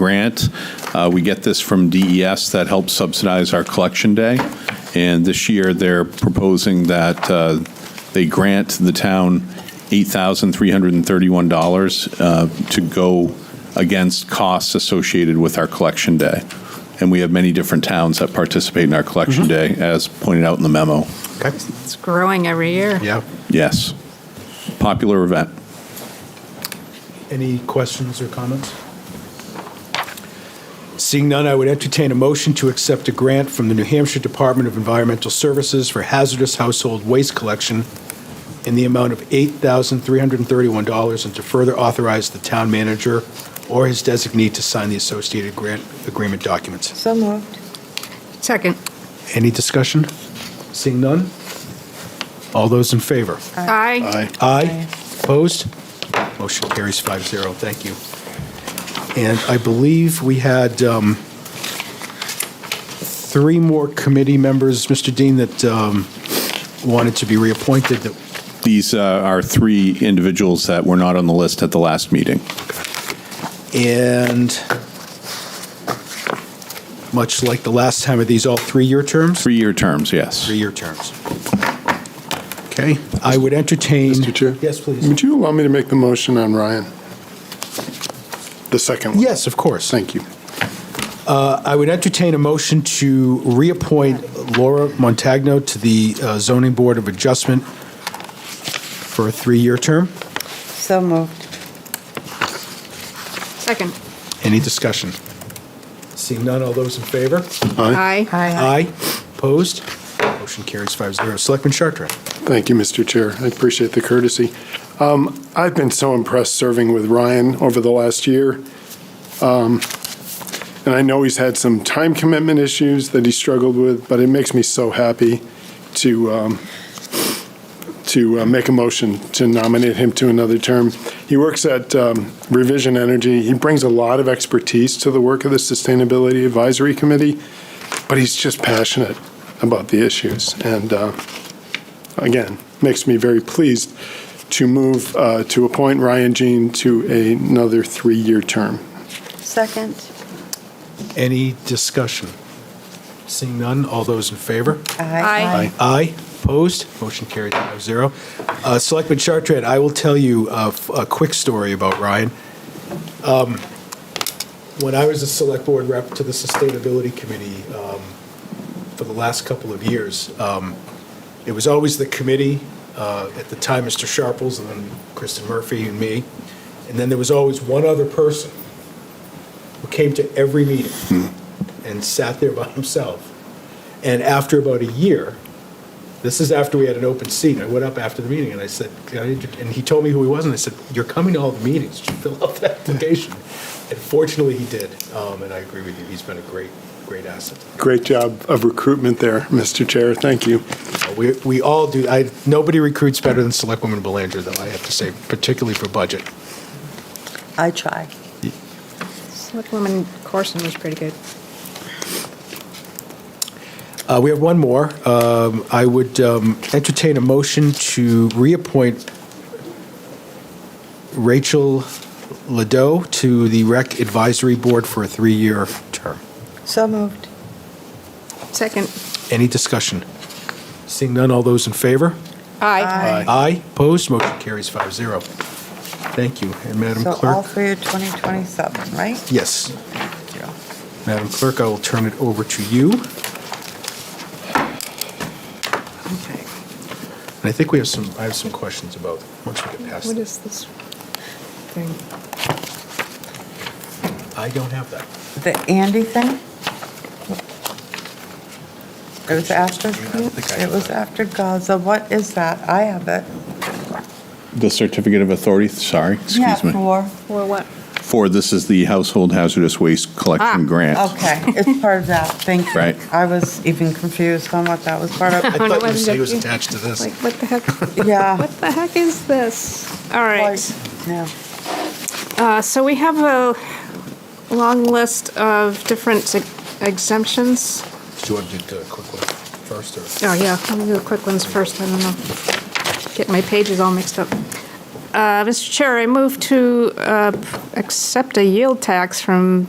grant. Uh, We get this from DES that helps subsidize our collection day. And this year, they're proposing that uh, they grant the town $8,331 uh, to go against costs associated with our collection day. And we have many different towns that participate in our collection day, as pointed out in the memo. Okay. It's growing every year. Yeah. Yes. Popular event. Any questions or comments? Seeing none, I would entertain a motion to accept a grant from the New Hampshire Department of Environmental Services for hazardous household waste collection in the amount of $8,331 and to further authorize the town manager or his designee to sign the associated grant agreement documents. So moved. Second. Any discussion? Seeing none? All those in favor? Aye. Aye. Opposed? Motion carries 5-0. Thank you. And I believe we had um, three more committee members, Mr. Dean, that um, wanted to be reappointed. that- These uh, are three individuals that were not on the list at the last meeting. And much like the last time, are these all three-year terms? Three-year terms, yes. Three-year terms. Okay. I would entertain. Mr. Chair? Yes, please. Would you allow me to make the motion on Ryan? The second one? Yes, of course. Thank you. I would entertain a motion to reappoint Laura Montagno to the uh, Zoning Board of Adjustment for a three-year term. So moved. Second. Any discussion? Seeing none, all those in favor? Aye. Aye. Aye. Opposed? Motion carries five zero. Selectman Chartran? Thank you, Mr. Chair. I appreciate the courtesy. Um, I've been so impressed serving with Ryan over the last year. Um, And I know he's had some time commitment issues that he struggled with, but it makes me so happy to, um, to uh, make a motion to nominate him to another term. He works at um, Revision Energy. He brings a lot of expertise to the work of the Sustainability Advisory Committee, but he's just passionate about the issues. And uh, again, makes me very pleased to move uh, to appoint Ryan Jean to another three-year term. Second. Any discussion? Seeing none, all those in favor? Aye. Aye. Opposed? Motion carried five zero. Uh, Selectman Chartran, I will tell you a, a quick story about Ryan. Um, When I was a select board rep to the Sustainability Committee um, for the last couple of years, um, it was always the committee, uh, at the time, Mr. Sharples, and then Kristen Murphy and me, and then there was always one other person who came to every meeting and sat there by himself. And after about a year, this is after we had an open seat, I went up after the meeting and I said, "Can I int-" and he told me who he was, and I said, you're coming to all the meetings, Did you fill out the application. And fortunately, he did, um, and I agree with you, he's been a great, great asset. Great job of recruitment there, Mr. Chair. Thank you. Uh, We, we all do, I, nobody recruits better than Selectwoman Belanger, though, I have to say, particularly for budget. I try. Selectwoman Corson was pretty good. Uh, We have one more. Um, I would um, entertain a motion to reappoint Rachel Lado to the Rec Advisory Board for a three-year term. So moved. Second. Any discussion? Seeing none, all those in favor? Aye. Aye. Opposed? Motion carries five zero. Thank you. And Madam So all Clerk? for your 2027, right? Yes. Madam Clerk, I will turn it over to you. And Okay. I think we have some, I have some questions about, once we get past, What is this thing? I don't have that. The Andy thing? It was after, I don't think I have it was that. after Gaza. What is that? I have it. The certificate of authority, sorry, Yeah, excuse me. for- For what? Four, this is the household hazardous waste Ah, collection grant. Okay, it's part of that. Thank you. Right. I was even confused on what that was part I of. Oh, no, thought you wasn't said it it was you? attached to this. Like, what the heck? Yeah. What the heck is this? All right. Yeah. Uh, So we have a long list of different ex- exemptions. Do you want to do the quick one first, or? Oh, yeah, let me do the quick ones first, I don't know. Get my pages all mixed up. Uh, Mr. Chair, I move to uh, accept a yield tax from